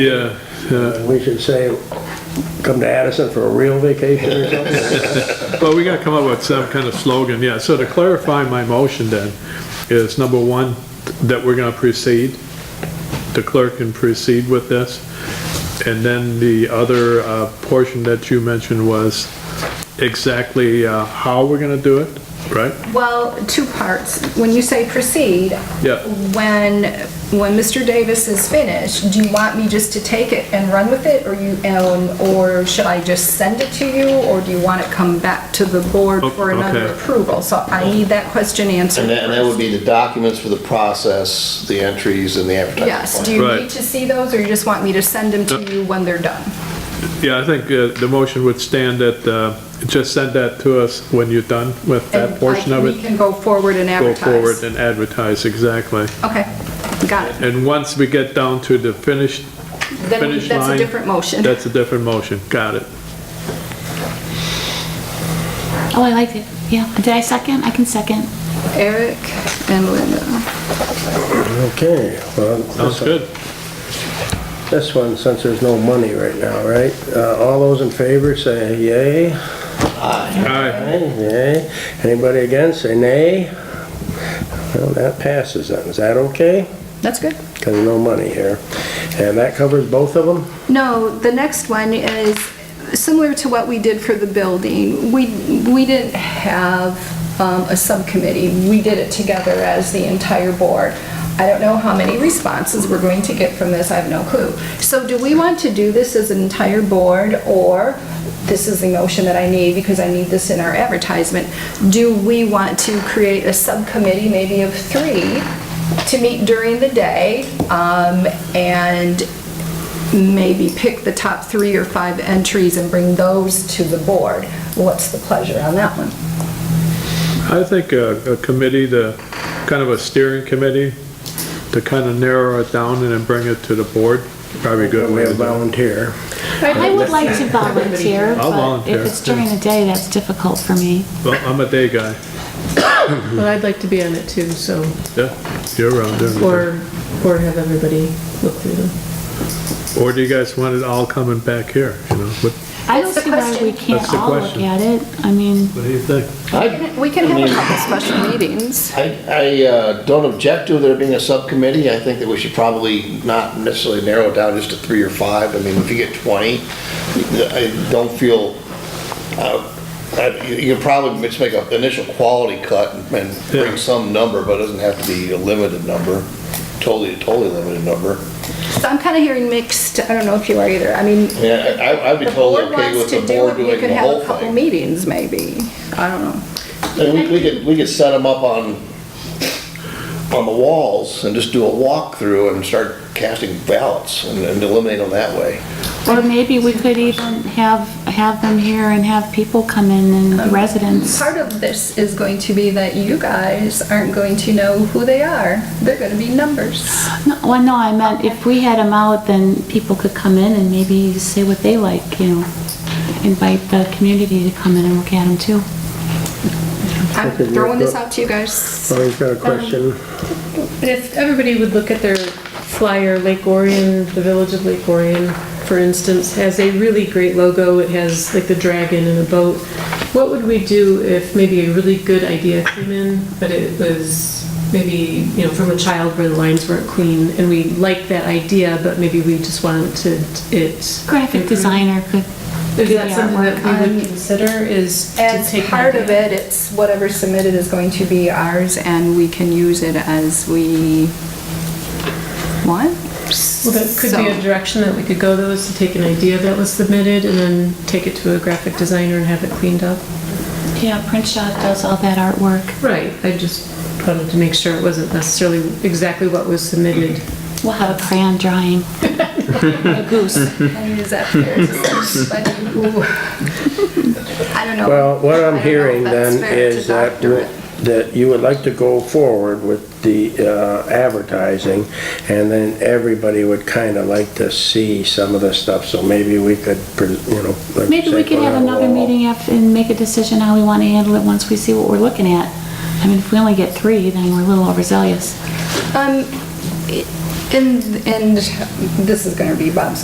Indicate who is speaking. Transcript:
Speaker 1: Yeah, yeah.
Speaker 2: We should say, come to Addison for a real vacation or something.
Speaker 1: Well, we gotta come up with some kind of slogan, yeah. So to clarify my motion then, is number one, that we're gonna proceed, the clerk can proceed with this. And then the other, uh, portion that you mentioned was exactly, uh, how we're gonna do it, right?
Speaker 3: Well, two parts. When you say proceed,
Speaker 1: Yeah.
Speaker 3: when, when Mr. Davis is finished, do you want me just to take it and run with it, or you, um, or should I just send it to you, or do you want it come back to the board
Speaker 1: Oh,
Speaker 3: for another
Speaker 1: okay.
Speaker 3: approval? So I need that question answered.
Speaker 4: And that, and that would be the documents for the process, the entries and the advertising.
Speaker 3: Yes,
Speaker 4: plan.
Speaker 3: do you
Speaker 1: Right.
Speaker 3: need to see those, or you just want me to send them to
Speaker 1: Yeah.
Speaker 3: you when they're done?
Speaker 1: Yeah, I think, uh, the motion would stand that, uh, just send that to us when you're done with
Speaker 3: And
Speaker 1: that portion
Speaker 3: I-
Speaker 1: of
Speaker 3: We
Speaker 1: it.
Speaker 3: can go forward and
Speaker 1: Go
Speaker 3: advertise.
Speaker 1: forward and advertise, exactly.
Speaker 3: Okay, got it.
Speaker 1: And once we get down to the finished
Speaker 3: Then
Speaker 1: Finish
Speaker 3: that's a
Speaker 1: line.
Speaker 3: different motion.
Speaker 1: That's a different motion, got it.
Speaker 5: Oh, I liked it. Yeah. Did I second? I can second.
Speaker 3: Eric and Linda.
Speaker 2: Okay. well,
Speaker 1: Sounds good.
Speaker 2: This one, since there's no money right now, right? Uh, All those in favor say yay.
Speaker 1: All right,
Speaker 2: Aye, Yay. Anybody against, say nay. Well, that passes then. Is that okay?
Speaker 3: That's good.
Speaker 2: Because no money here. And that covers both of them?
Speaker 3: No, the next one is similar to what we did for the building. We, we didn't have um, a subcommittee. We did it together as the entire board. I don't know how many responses we're going to get from this, I have no clue. So do we want to do this as an entire board, or this is the motion that I need because I need this in our advertisement? Do we want to create a subcommittee, maybe of three, to meet during the day um, and maybe pick the top three or five entries and bring those to the board. What's the pleasure on that one?
Speaker 1: I think a, a committee, the, kind of a steering committee, to kind of narrow it down and then bring it to the board, probably a good
Speaker 2: We
Speaker 1: way to
Speaker 2: have
Speaker 1: do it.
Speaker 2: volunteer.
Speaker 5: I would like to volunteer,
Speaker 1: I'll
Speaker 5: but
Speaker 1: volunteer.
Speaker 5: if it's during the day, that's difficult for me.
Speaker 1: Well, I'm a day guy,
Speaker 6: Well, I'd like to be on it too, so,
Speaker 1: yeah, you're around doing
Speaker 6: or, or have everybody look through them.
Speaker 1: it. Or do you guys want it all coming back here, you know, what,
Speaker 5: I don't
Speaker 3: That's the
Speaker 5: see why
Speaker 3: question.
Speaker 5: we can't
Speaker 1: That's the
Speaker 5: all look
Speaker 1: question.
Speaker 5: at it. I mean,
Speaker 1: what do you think?
Speaker 4: I,
Speaker 3: We can have a couple special meetings.
Speaker 4: I, I uh, don't object to there being a subcommittee. I think that we should probably not necessarily narrow it down just to three or five. I mean, if you get 20, I don't feel, uh, I- you you can probably just make an initial quality cut and
Speaker 1: Yeah.
Speaker 4: bring some number, but it doesn't have to be a limited number, totally, totally limited number.
Speaker 3: So I'm kind of hearing mixed, I don't know if you are either. I mean,
Speaker 4: Yeah, I, I'd be
Speaker 3: the
Speaker 4: totally
Speaker 3: board
Speaker 4: okay
Speaker 3: wants
Speaker 4: with
Speaker 3: to
Speaker 4: the
Speaker 3: do
Speaker 4: board
Speaker 3: it, we
Speaker 4: doing
Speaker 3: could
Speaker 4: the
Speaker 3: have
Speaker 4: whole
Speaker 3: a couple
Speaker 4: thing.
Speaker 3: meetings maybe. I don't know.
Speaker 4: And we, we could, we could set them up on, on the walls and just do a walkthrough and start casting ballots and and eliminate them that way.
Speaker 5: or maybe we could even have, have them here and have people come in and residents.
Speaker 3: Part of this is going to be that you guys aren't going to know who they are. They're going to be numbers.
Speaker 5: No, Well, no, I meant if we had them out, then people could come in and maybe say what they like, you know. Invite the community to come in and look at them too.
Speaker 3: I'm
Speaker 2: Okay,
Speaker 3: throwing
Speaker 2: yeah.
Speaker 3: this out to you guys.
Speaker 2: Tony's got a question.
Speaker 6: And if everybody would look at their flyer, Lake Orion, the Village of Lake Orion, for instance, has a really great logo. It has like the dragon and a boat. What would we do if maybe a really good idea came in, but it was maybe, you know, from a child where the lines weren't clean, and we liked that idea, but maybe we just wanted it.
Speaker 5: Graphic designer could do
Speaker 6: Is
Speaker 5: the
Speaker 6: that something
Speaker 5: artwork.
Speaker 6: that we would consider, is to
Speaker 3: As
Speaker 6: take?
Speaker 3: part of it, it's whatever submitted is going to be ours, and we can use it as we want.
Speaker 6: Well, that could be a
Speaker 3: So-
Speaker 6: direction that we could go though, is to take an idea that was submitted and then take it to a graphic designer and have it cleaned up.
Speaker 5: Yeah, Print Shop does all that artwork.
Speaker 6: Right, I just wanted to make sure it wasn't necessarily exactly what was submitted.
Speaker 5: We'll have a crayon drawing. A goose.
Speaker 3: And is that fair to somebody who- I don't know.
Speaker 2: Well, what
Speaker 3: I don't
Speaker 2: I'm
Speaker 3: know
Speaker 2: hearing
Speaker 3: if that's
Speaker 2: then
Speaker 3: fair to
Speaker 2: is that,
Speaker 3: doctor it.
Speaker 2: that you would like to go forward with the uh, advertising, and then everybody would kind of like to see some of this stuff, so maybe we could, pre- you know. like
Speaker 5: Maybe
Speaker 2: you
Speaker 5: we
Speaker 2: say,
Speaker 5: could
Speaker 2: put
Speaker 5: have
Speaker 2: on a
Speaker 5: another
Speaker 2: wall.
Speaker 5: meeting after and make a decision how we want to handle it once we see what we're looking at. I mean, if we only get three, then we're a little overzealous.
Speaker 3: Um, And, and this is gonna be Bob's